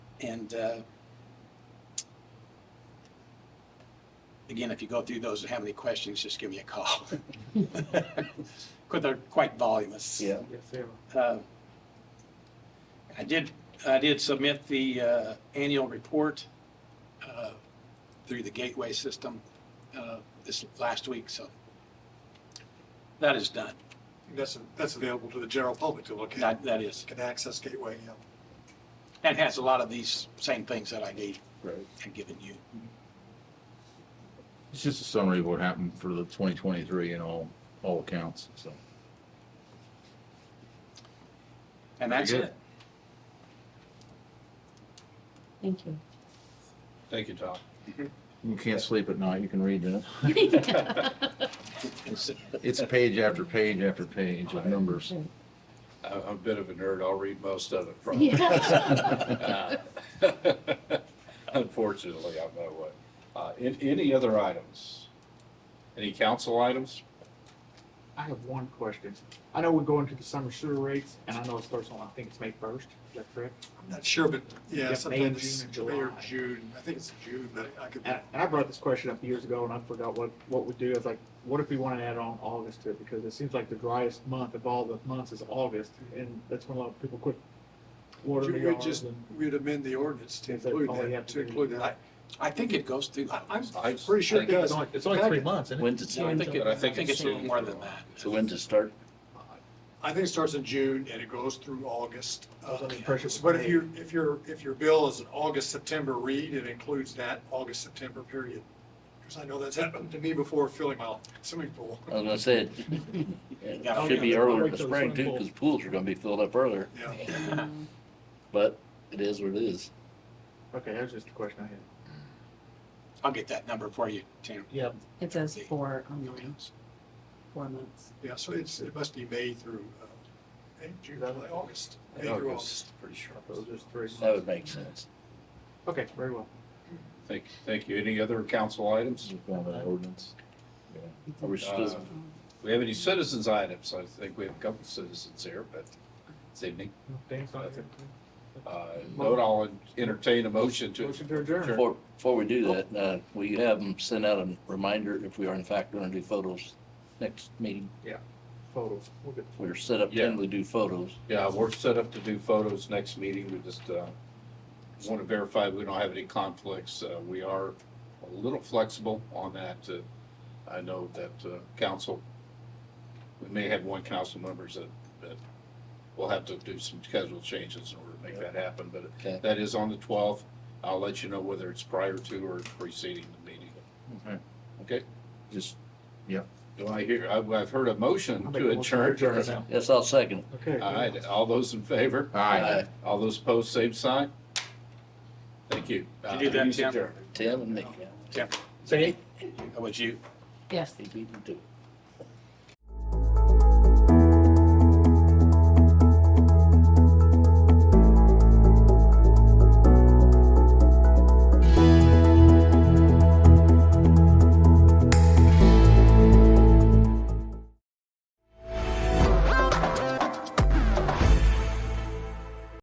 And uh, again, if you go through those and have any questions, just give me a call. Because they're quite voluminous. Yeah. Yes, they are. Uh, I did, I did submit the uh, annual report uh, through the gateway system uh, this last week, so that is done. That's, that's available to the general public to look at, That, that is. can access Gateway, yeah. And has a lot of these same things that I need Right. and given you. It's just a summary of what happened for the 2023 in all, all accounts, so. And that's Very it. good. Thank you. Thank you, Tom. You can't sleep at night, you can read it. It's- It's page after page after page of numbers. I- I'm a bit of a nerd. I'll read most of it from. Uh, Yeah. Unfortunately, I'm that way. Uh, an- Any other items? Any council items? I have one question. I know we're going to the summer sewer rates, and I know it starts on, I think it's May first, is that correct? I'm not sure, but Yeah, yeah, May, sometimes June, and May or July. June, I think it's June, but I could, And and I brought this question up years ago, and I forgot what, what we do. It's like, what if we want to add on August to it? Because it seems like the driest month of all the months is August, and that's when a lot of people quit watering their we yards. just, and- we'd amend the ordinance to Is that include all you have that, to to do? include that. I think it goes through. I- I- I'm I pretty sure it think- does. It's only, it's only three months, isn't it? When does, No, I so think, it- But I I think think it's a it's little two. more than that. when to start? I think it starts in June and it goes through August. I was under Uh, the impression it was But if May. you, if your, if your bill is an August, September read, it includes that August, September period. Because I know that's happened to me before filling my swimming pool. I Oh, was gonna say, it Yeah. should be earlier in the Those spring too, swimming because pools are gonna be filled up earlier, Yeah. but it is what it is. Okay, that was just a question I had. I'll get that number for you, Tim. Yeah, It says four online, four months. Yeah, so it's, it must be May through, uh, May, June, July, August, May through August. August, pretty sure. those are just three That months. would make sense. Okay, very well. Thank, thank you. Any other council items? Mm-hmm. Uh, Just found that ordinance. Are we supposed- We have any citizens items? I think we have a couple citizens here, but this evening. Dan's not here. Uh, Note I'll entertain a motion to. Motion to adjourn. Before, before we do that, uh, will you have them send out a reminder if we are in fact gonna do photos next meeting? Photos, we'll get We're set up Yeah. to do photos. Yeah, we're set up to do photos next meeting. We just uh, want to verify we don't have any conflicts. Uh, We are a little flexible on that. Uh, I know that uh, council, we may have one council members that, that will have to do some schedule changes in order to make that happen, Okay. but that is on the 12th. I'll let you know whether it's prior to or preceding the meeting. Okay. Okay? Just, Do I hear, I've, I've heard a motion I'll make to a motion to adjourn. adjourn now. Yes, I'll second. Okay. All right, all those in favor? aye. All those opposed, same sign? Thank you. Uh, Did you do that, Meeting's Tim? adjourned. Tim and Nick. Tim, Say it. that was you. Yes. He beat me to it.